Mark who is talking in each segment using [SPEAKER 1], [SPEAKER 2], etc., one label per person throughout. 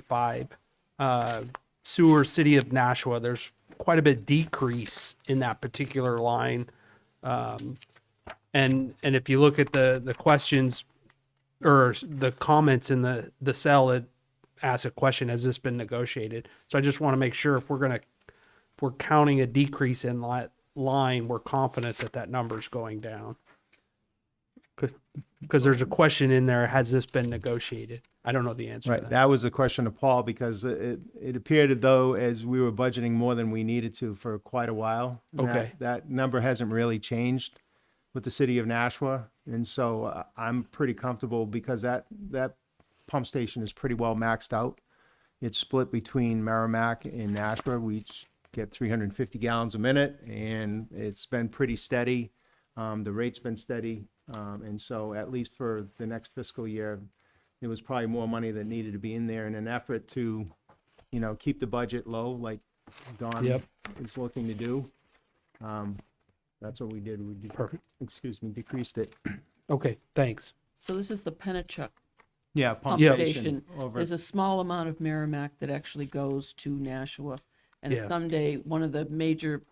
[SPEAKER 1] 45, uh, sewer city of Nashua, there's quite a bit decrease in that particular line. Um, and, and if you look at the, the questions or the comments in the, the cell, it asks a question, has this been negotiated? So I just want to make sure if we're going to, if we're counting a decrease in that line, we're confident that that number's going down. Because there's a question in there, has this been negotiated? I don't know the answer to
[SPEAKER 2] Right,
[SPEAKER 1] that.
[SPEAKER 2] that was the question to Paul, because it, it appeared as though as we were budgeting more than we needed to for quite a while. that-
[SPEAKER 1] Okay.
[SPEAKER 2] That number hasn't really changed with the city of Nashua, and so uh, I'm pretty comfortable because that, that pump station is pretty well maxed out. It's split between Merrimack and Nashua, we each get three hundred and fifty gallons a minute, and it's been pretty steady. Um, the rate's been steady, um, and so at least for the next fiscal year, there was probably more money that needed to be in there in an effort to, you know, keep the budget low like Don
[SPEAKER 1] Yep.
[SPEAKER 2] is looking to do. Um, that's what we did. We did,
[SPEAKER 1] Perfect.
[SPEAKER 2] excuse me, decreased it.
[SPEAKER 1] Okay, thanks.
[SPEAKER 3] So this is the Pennachuck
[SPEAKER 2] Yeah.
[SPEAKER 3] pump
[SPEAKER 1] Yeah.
[SPEAKER 3] station.
[SPEAKER 2] Over.
[SPEAKER 3] There's a small amount of Merrimack that actually goes to Nashua. And
[SPEAKER 1] Yeah.
[SPEAKER 3] someday, one of the major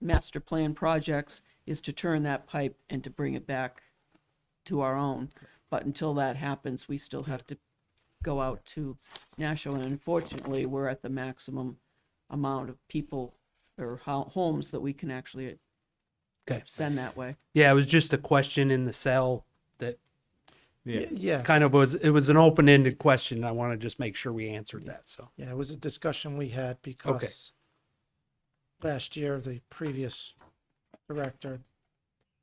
[SPEAKER 3] master plan projects is to turn that pipe and to bring it back to our own. But until that happens, we still have to go out to Nashua. And unfortunately, we're at the maximum amount of people or ho- homes that we can actually
[SPEAKER 1] Okay.
[SPEAKER 3] send that way.
[SPEAKER 1] Yeah, it was just a question in the cell that
[SPEAKER 2] Yeah.
[SPEAKER 4] Yeah,
[SPEAKER 1] kind of was, it was an open-ended question. and I want to just make sure we answered that. So,
[SPEAKER 4] yeah, it was a discussion we had because last year, the previous director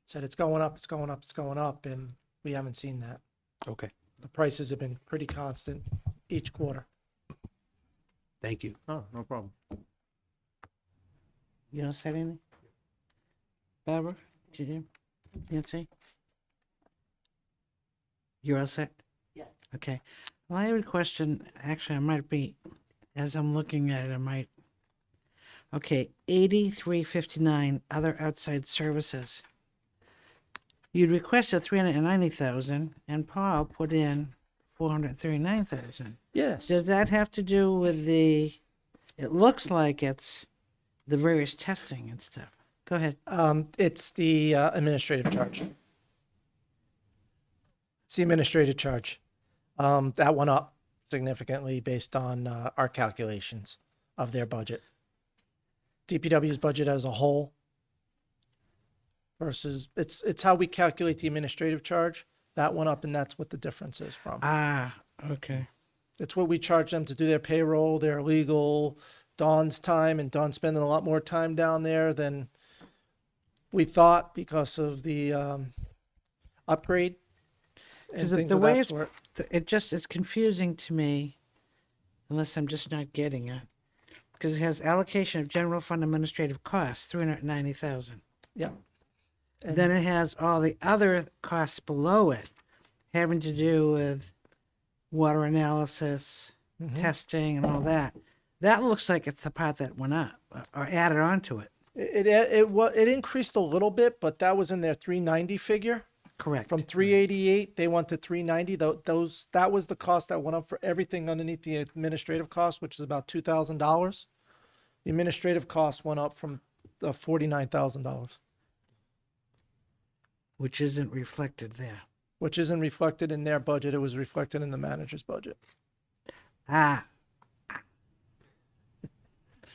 [SPEAKER 4] said it's going up, it's going up, it's going up, and we haven't seen that.
[SPEAKER 1] okay,
[SPEAKER 4] The prices have been pretty constant each quarter.
[SPEAKER 1] thank you.
[SPEAKER 2] Oh, no problem.
[SPEAKER 5] You don't say anything? Barbara, did you? Nancy? You're all set? Yeah. Okay. Well, I have a question. Actually, I might be, as I'm looking at it, I might. Okay, eighty-three fifty-nine, other outside services. You'd requested three hundred and ninety thousand, and Paul put in four hundred and thirty-nine thousand.
[SPEAKER 4] Yes.
[SPEAKER 5] Does that have to do with the, it looks like it's the various testing and stuff. Go ahead.
[SPEAKER 4] Um, it's the uh, administrative charge. It's the administrative charge. Um, that went up significantly based on uh, our calculations of their budget. DPW's budget as a whole versus it's it's how we calculate the administrative charge. That went up, and that's what the difference is from.
[SPEAKER 5] Ah, okay.
[SPEAKER 4] It's what we charge them to do their payroll, their legal, Don's time, and Don's spending a lot more time down there than we thought because of the um, upgrade and
[SPEAKER 5] Because the,
[SPEAKER 4] things
[SPEAKER 5] the
[SPEAKER 4] of
[SPEAKER 5] way
[SPEAKER 4] that
[SPEAKER 5] it's,
[SPEAKER 4] sort.
[SPEAKER 5] th- it just is confusing to me, unless I'm just not getting it. Because it has allocation of general fund administrative costs, three hundred ninety thousand.
[SPEAKER 4] Yeah, And-
[SPEAKER 5] Then it has all the other costs below it, having to do with water analysis,
[SPEAKER 4] Mm-hmm.
[SPEAKER 5] testing, and all that. That looks like it's the part that went up uh, or added on to it.
[SPEAKER 4] it it it, wa it increased a little bit, but that was in their 390 figure.
[SPEAKER 5] Correct.
[SPEAKER 4] From 388, they went to 390. Tho- Those that was the cost that went up for everything underneath the administrative cost, which is about two thousand dollars. The administrative cost went up from uh, forty nine thousand dollars,
[SPEAKER 5] which isn't reflected there.
[SPEAKER 4] which isn't reflected in their budget. It was reflected in the manager's budget.
[SPEAKER 5] Ah,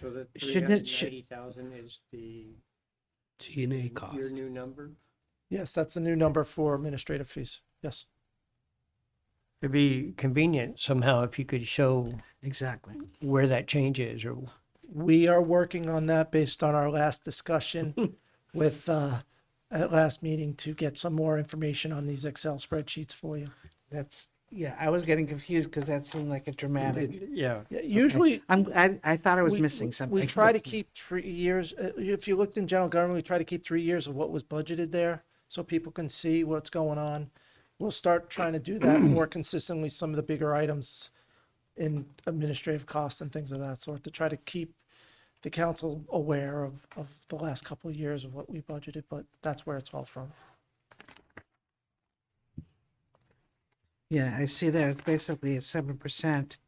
[SPEAKER 6] So the
[SPEAKER 5] Shouldn't it- should-
[SPEAKER 6] 390,000 is the,
[SPEAKER 1] T and A cost.
[SPEAKER 6] your new number?
[SPEAKER 4] Yes, that's the new number for administrative fees. Yes,
[SPEAKER 6] It'd be convenient somehow if you could show
[SPEAKER 5] exactly.
[SPEAKER 6] where that change is or
[SPEAKER 4] we are working on that based on our last discussion with uh, at last meeting to get some more information on these Excel spreadsheets for you.
[SPEAKER 5] That's yeah. I was getting confused because that seemed like a dramatic.
[SPEAKER 6] Yeah.
[SPEAKER 4] Yeah, usually.
[SPEAKER 5] I'm I, I thought I was
[SPEAKER 4] we-
[SPEAKER 5] missing
[SPEAKER 4] we-
[SPEAKER 5] something.
[SPEAKER 4] We try to keep three years, uh, if you looked in general government, we try to keep three years of what was budgeted there so people can see what's going on. We'll start trying to do that more consistently, some of the bigger items in administrative costs and things of that sort to try to keep the council aware of, of the last couple of years of what we budgeted, but that's where it's all from.
[SPEAKER 5] Yeah, I see that. It's basically a seven percent